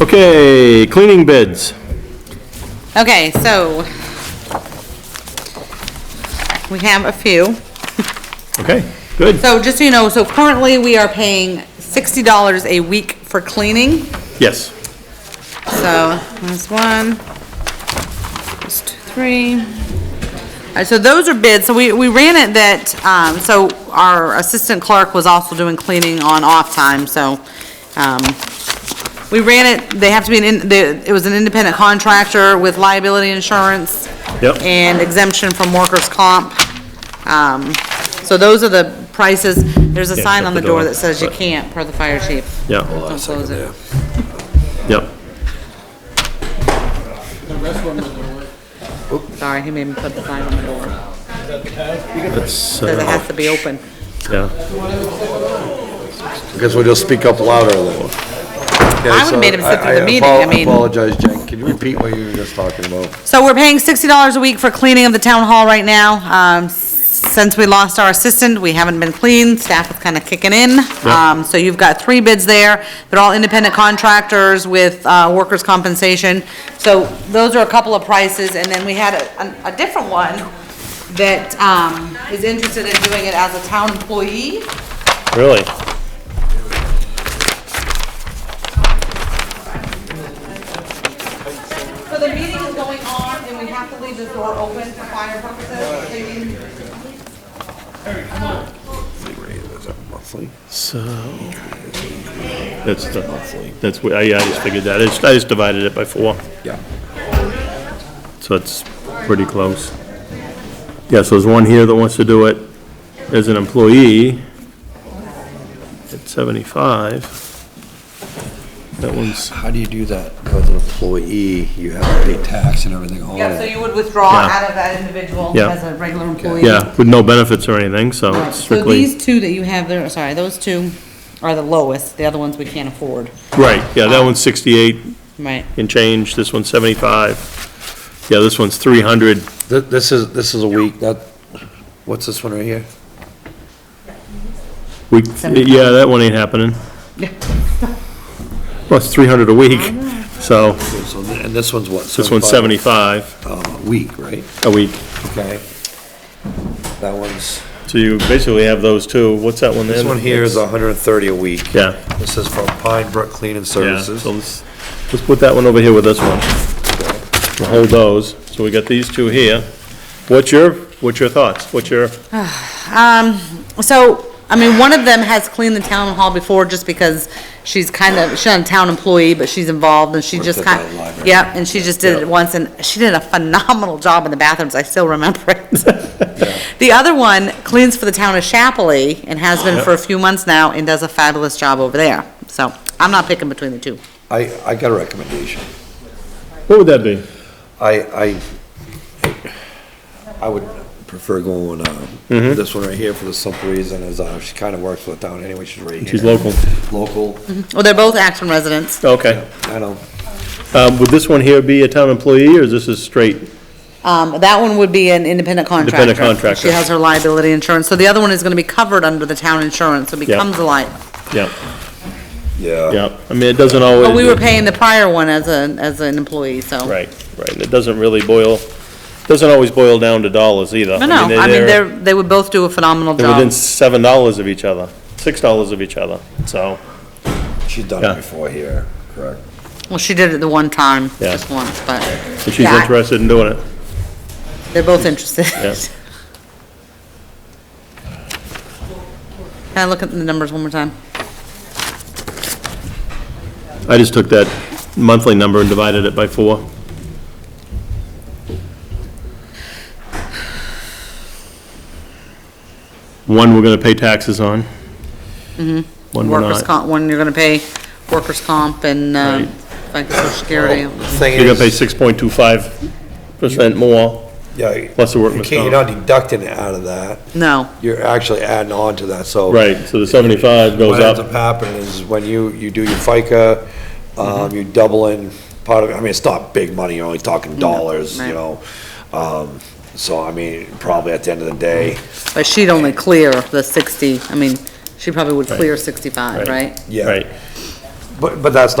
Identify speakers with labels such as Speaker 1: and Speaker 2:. Speaker 1: Okay, cleaning bids.
Speaker 2: Okay, so we have a few.
Speaker 1: Okay, good.
Speaker 2: So just so you know, so currently we are paying sixty dollars a week for cleaning.
Speaker 1: Yes.
Speaker 2: So there's one, there's two, three. All right, so those are bids. So we, we ran it that, um, so our assistant clerk was also doing cleaning on off time, so, um, we ran it, they have to be an, in- the- it was an independent contractor with liability insurance.
Speaker 1: Yep.
Speaker 2: And exemption from workers' comp. Um, so those are the prices. There's a
Speaker 1: Yeah,
Speaker 2: sign
Speaker 1: shut
Speaker 2: on
Speaker 1: the
Speaker 2: the door
Speaker 1: door,
Speaker 2: that says you
Speaker 1: but-
Speaker 2: can't, per the fire chief.
Speaker 1: Yeah,
Speaker 2: Don't close it.
Speaker 1: yep.
Speaker 2: Sorry, he made me put the sign on the door.
Speaker 1: That's,
Speaker 2: Says it
Speaker 1: uh,
Speaker 2: has to be open.
Speaker 1: yeah.
Speaker 3: I guess we'll just speak up louder a little.
Speaker 2: I would've made him sit through the meeting, I mean-
Speaker 3: I apologize, Jen, can you repeat what you were just talking about?
Speaker 2: So we're paying sixty dollars a week for cleaning of the town hall right now. Um, since we lost our assistant, we haven't been clean, staff is kinda kicking in.
Speaker 1: Yeah.
Speaker 2: Um, so you've got three bids there. They're all independent contractors with, uh, workers' compensation. So those are a couple of prices, and then we had a, a- a different one that, um, is interested in doing it as a town employee.
Speaker 1: Really?
Speaker 2: So the meeting is going on, and we have to leave this door open for fire purposes. so you-
Speaker 1: So, that's, the- that's, what- I I just figured that. I just- I just divided it by four,
Speaker 3: Yeah.
Speaker 1: so it's pretty close. Yeah, so there's one here that wants to do it as an employee at 75. That one's,
Speaker 3: How do you do that? As an employee, you have to pay tax and everything on
Speaker 2: Yeah, so
Speaker 3: it.
Speaker 2: you would withdraw
Speaker 1: Yeah.
Speaker 2: out of that individual
Speaker 1: Yeah.
Speaker 2: as a regular employee?
Speaker 1: yeah, with no benefits or anything, so
Speaker 2: Right.
Speaker 1: it's
Speaker 2: So
Speaker 1: strictly.
Speaker 2: these two that you have there, sorry, those two are the lowest, the other ones we can't afford,
Speaker 1: Right, yeah, that one's 68
Speaker 2: right?
Speaker 1: and change, this one's 75. Yeah, this one's 300,
Speaker 3: Th- This is, this is a week, that, what's this one right here?
Speaker 1: we, yeah, that one ain't happening. Well, it's 300 a week, so
Speaker 3: Okay, so th- And this one's what?
Speaker 1: this one's 75
Speaker 3: Uh, A week, right?
Speaker 1: a week.
Speaker 3: Okay. That one's,
Speaker 1: So you basically have those two, what's that one there?
Speaker 3: this one here is hundred and thirty a week.
Speaker 1: Yeah.
Speaker 3: This is from Pine Brook Cleaning
Speaker 1: Yeah,
Speaker 3: Services.
Speaker 1: so let's, let's put that one over here with this one. We'll hold those, so we got these two here. What's your, what's your thoughts? What's your,
Speaker 2: Um, so, I mean, one of them has cleaned the town hall before just because she's kind of, she's not a town employee, but she's involved and she just
Speaker 3: at that
Speaker 2: kind of.
Speaker 3: library.
Speaker 2: Yep, and she just did
Speaker 1: Yeah.
Speaker 2: it once and she did a phenomenal job in the bathrooms. I still remember it. The other one cleans for the town of Chapley and has been for a few months now and does a fabulous job over there. So I'm not picking between the two.
Speaker 3: I, I got a recommendation.
Speaker 1: what would that be?
Speaker 3: I, I, I would prefer going, um,
Speaker 1: Mm-hmm.
Speaker 3: this one right here for the simple reason is, uh, she kinda works for the town anyway, she's right here.
Speaker 1: She's local.
Speaker 3: Local,
Speaker 2: Well, they're both Acton residents.
Speaker 1: Okay.
Speaker 3: I know,
Speaker 1: Um, would this one here be a town employee, or is this a straight?
Speaker 2: Um, that one would be an independent contractor.
Speaker 1: Independent contractor.
Speaker 2: She has her liability insurance, so the other one is gonna be covered under the town insurance, so it becomes a li,
Speaker 1: Yeah,
Speaker 3: yeah.
Speaker 1: yeah. I mean, it doesn't always.
Speaker 2: but we were paying the prior one as a, as an employee, so.
Speaker 1: Right, right. and It doesn't really boil, doesn't always boil down to dollars either.
Speaker 2: But no, I mean, they're, they would both do a phenomenal
Speaker 1: They're within
Speaker 2: job.
Speaker 1: seven dollars of each other, six dollars of each other, so,
Speaker 3: She's done
Speaker 1: Yeah.
Speaker 3: it before here, correct?
Speaker 2: Well, she did it the one time,
Speaker 1: Yeah.
Speaker 2: just once, but
Speaker 1: if she's
Speaker 2: Yeah.
Speaker 1: interested in doing it.
Speaker 2: they're both interested.
Speaker 1: Yeah.
Speaker 2: Can I look at the numbers one more time?
Speaker 1: I just took that monthly number and divided it by four. One we're gonna pay taxes on. Mm-hmm. One we're
Speaker 2: Workers'
Speaker 1: not.
Speaker 2: comp, one you're gonna pay workers' comp and, uh,
Speaker 1: Right.
Speaker 2: like social security.
Speaker 3: The Thing
Speaker 1: You're gonna pay
Speaker 3: is,
Speaker 1: six point two five percent more.
Speaker 3: yeah, you
Speaker 1: plus the workman's
Speaker 3: can't, you're not deducting it out of that,
Speaker 2: No,
Speaker 3: you're actually adding on to that, so.
Speaker 1: Right, so the seventy-five goes
Speaker 3: What ends up
Speaker 1: up.
Speaker 3: happening is when you, you do your FICA, um, you double in part of, it. I mean, it's not big money, you're only talking dollars,
Speaker 2: right.
Speaker 3: you know? Um, so I mean, probably at the end of the day,
Speaker 2: but she'd only clear the sixty, I mean, she probably would clear sixty-five,
Speaker 1: Right.
Speaker 2: right?
Speaker 3: yeah.
Speaker 1: Right.
Speaker 3: But, but that's